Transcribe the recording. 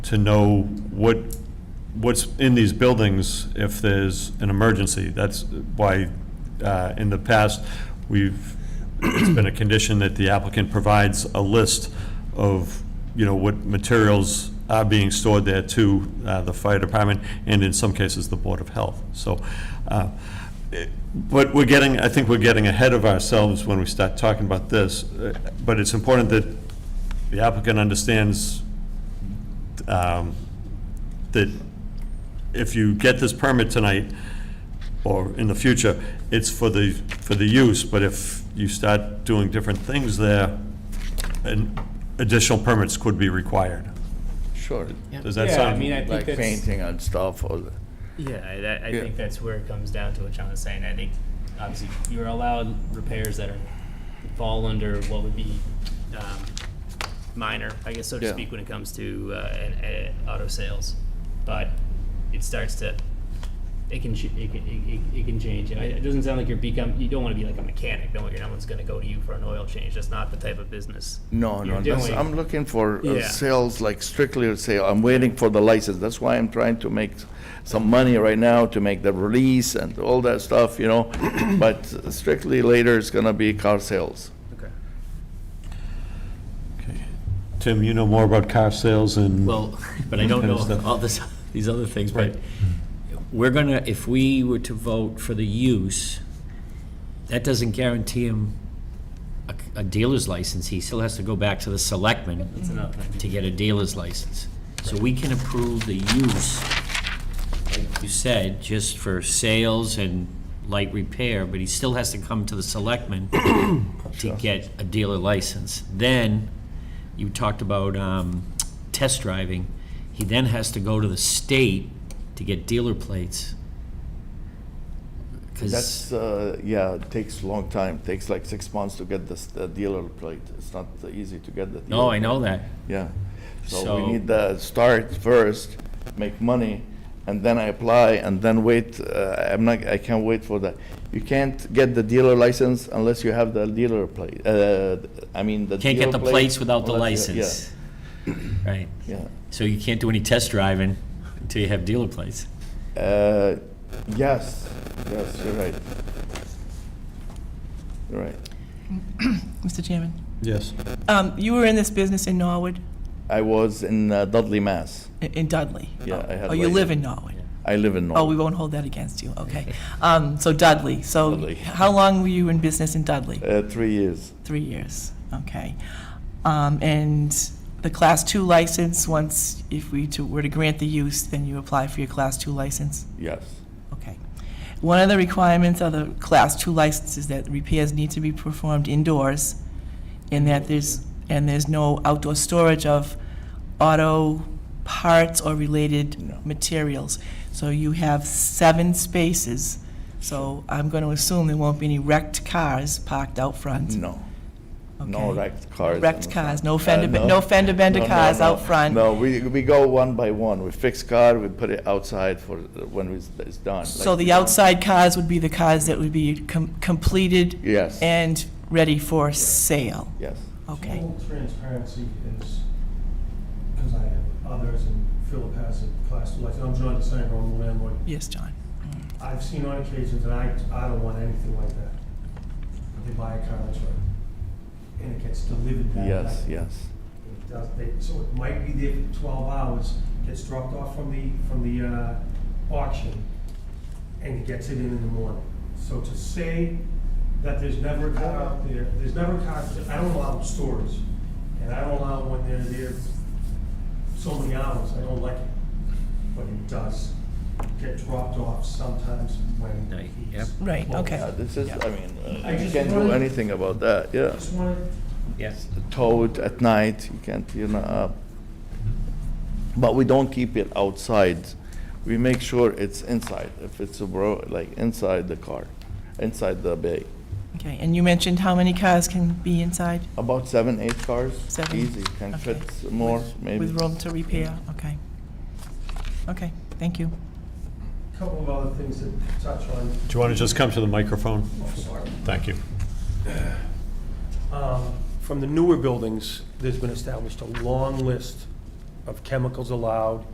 to know what, what's in these buildings if there's an emergency. That's why, uh, in the past, we've, it's been a condition that the applicant provides a list of, you know, what materials are being stored there to uh, the fire department, and in some cases, the Board of Health. So, uh, it- but we're getting, I think we're getting ahead of ourselves when we start talking about this, Uh, but it's important that the applicant understands um, that if you get this permit tonight, or in the future, it's for the, for the use, but if you start doing different things there, and additional permits could be required. Sure, Does that Yeah, I sound? mean, I like think that's, painting and stuff, or, the- yeah, I- that, I Yeah. think that's where it comes down to what John was saying. I think, obviously, you're allowed repairs that are, fall under what would be, um, minor, I guess, so to Yeah. speak, when it comes to, uh, an, a- auto sales. But it starts to, it can, ch- it can, it- it, it can change. I- It doesn't sound like you're become, you don't wanna be like a mechanic, no, no one's gonna go to you for an oil change. That's not the type of business. no, no, you're that's, doing. I'm looking for uh, Yeah. sales, like strictly a sale, I'm waiting for the license, that's why I'm trying to make some money right now to make the release and all that stuff, you know, but strictly later it's gonna be car sales. Okay. Okay. Tim, you know more about car sales and. Well, but I don't Kind know of Mm. stuff. all this, these other things, but Mm. Right. we're gonna, if we were to vote for the use, that doesn't guarantee him a, a dealer's license. He still has to go back to the selectmen another thing. to get a dealer's license. So we can approve the use, like you said, just for sales and light repair, but he still has to come to the selectmen to get a dealer license. Then, you talked about um, test driving, he then has to go to the state to get dealer plates. That's, Because, uh, yeah, it takes a long time, takes like six months to get this the dealer plate, it's not easy to get the dealer. no, I know that, Yeah, so So- we need the start first, make money, and then I apply, and then wait, uh, I'm not, I can't wait for that. You can't get the dealer license unless you have the dealer plate, uh, I mean, the can't dealer get the plate plates without the unless you- license. Right, Yeah, yeah. so you can't do any test driving until you have dealer plates. Uh, Yes, yes, you're right. You're right. Mr. Chairman. Yes. Um, you were in this business in Norwood, I was in uh, Dudley, Mass. i- in Dudley. Yeah, I had Oh, you labor. live in Norwood. I live in Oh, we Norwood. won't hold that against you, okay. Um, so Dudley, so Dudley. how long were you in business in Dudley? Uh, Three years. Three years, okay. Um, and the Class Two license, once, if we to- were to grant the use, then you apply for your Class Two license? Yes. Okay. One of the requirements of the Class 2 license is that repairs need to be performed indoors, and that there's, and there's no outdoor storage of auto parts or No. related materials. So you have seven spaces, so I'm going to assume there won't be any wrecked cars parked out front. No. No Okay. wrecked cars. in Wrecked the cars, front. no fender, Uh, ben- no fender bender No, no, cars no. out front. No, we, we go one by one. We fix car, we put it outside for when it's it's done. So like we the don't- outside cars would be the cars that would be com- completed Yes, and ready for sale. yes. Okay, Full transparency is, because I have others, and Philip has a class two license, I'm John DeSanto, I'm the landlord. yes, John. I've seen on occasions, and I, I don't want anything like that. They buy a car, that's right, and it gets delivered that night. Yes, yes. It does, they, so it might be there for twelve hours, gets dropped off from the, from the, uh, auction, and he gets it in in the morning. So to say that there's never a car out there, there's never a car, I don't allow stores, and I don't allow when they're there so many hours, I don't like it. But it does get dropped off sometimes Night, when yep. he's. Right, closed. okay. Yeah, this is, I mean, uh, I you just can't do wanted- anything about that, yeah. Just wanted Yes. towed at night, you can't, you know, uh, but we don't keep it outside. We make sure it's inside, if it's a bro, like inside the car, inside the bay. Okay, and you mentioned how many cars can be inside About seven, eight cars, Seven, easy, can okay. fit more, maybe. with room to repair? Okay. Okay, thank you. a couple of other things to touch on. Do you want to just come to the microphone? Oh, sorry. Thank you. Um, From the newer buildings, there's been established a long list of chemicals allowed